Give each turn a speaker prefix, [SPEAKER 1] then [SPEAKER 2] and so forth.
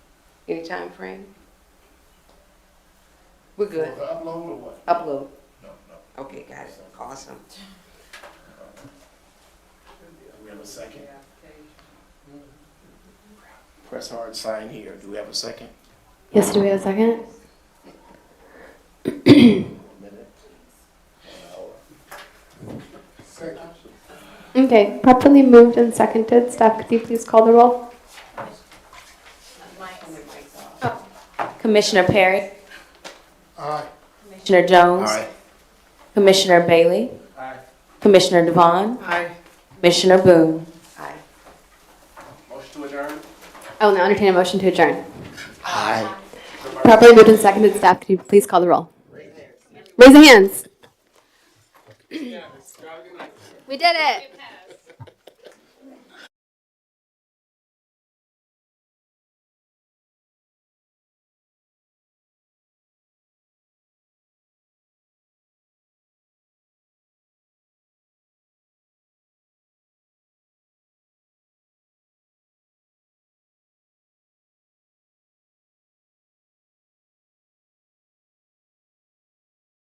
[SPEAKER 1] Any time frame? We're good.
[SPEAKER 2] For Upload or what?
[SPEAKER 1] Upload.
[SPEAKER 2] No, no.
[SPEAKER 1] Okay, got it. Awesome.
[SPEAKER 2] Do we have a second? Press hard sign here. Do we have a second?
[SPEAKER 3] Yes, do we have a second?
[SPEAKER 2] A minute?
[SPEAKER 3] Okay, properly moved and seconded. Staff, could you please call the roll?
[SPEAKER 4] Commissioner Perry,
[SPEAKER 2] Aye.
[SPEAKER 4] Commissioner Jones,
[SPEAKER 2] Aye.
[SPEAKER 4] Commissioner Bailey,
[SPEAKER 2] Aye.
[SPEAKER 4] Commissioner Devon,
[SPEAKER 1] Aye.
[SPEAKER 4] Commissioner Boone.
[SPEAKER 1] Aye.
[SPEAKER 2] Motion to adjourn?
[SPEAKER 3] I will now entertain a motion to adjourn.
[SPEAKER 2] Aye.
[SPEAKER 3] Properly moved and seconded. Staff, could you please call the roll? Raise your hands. We did it.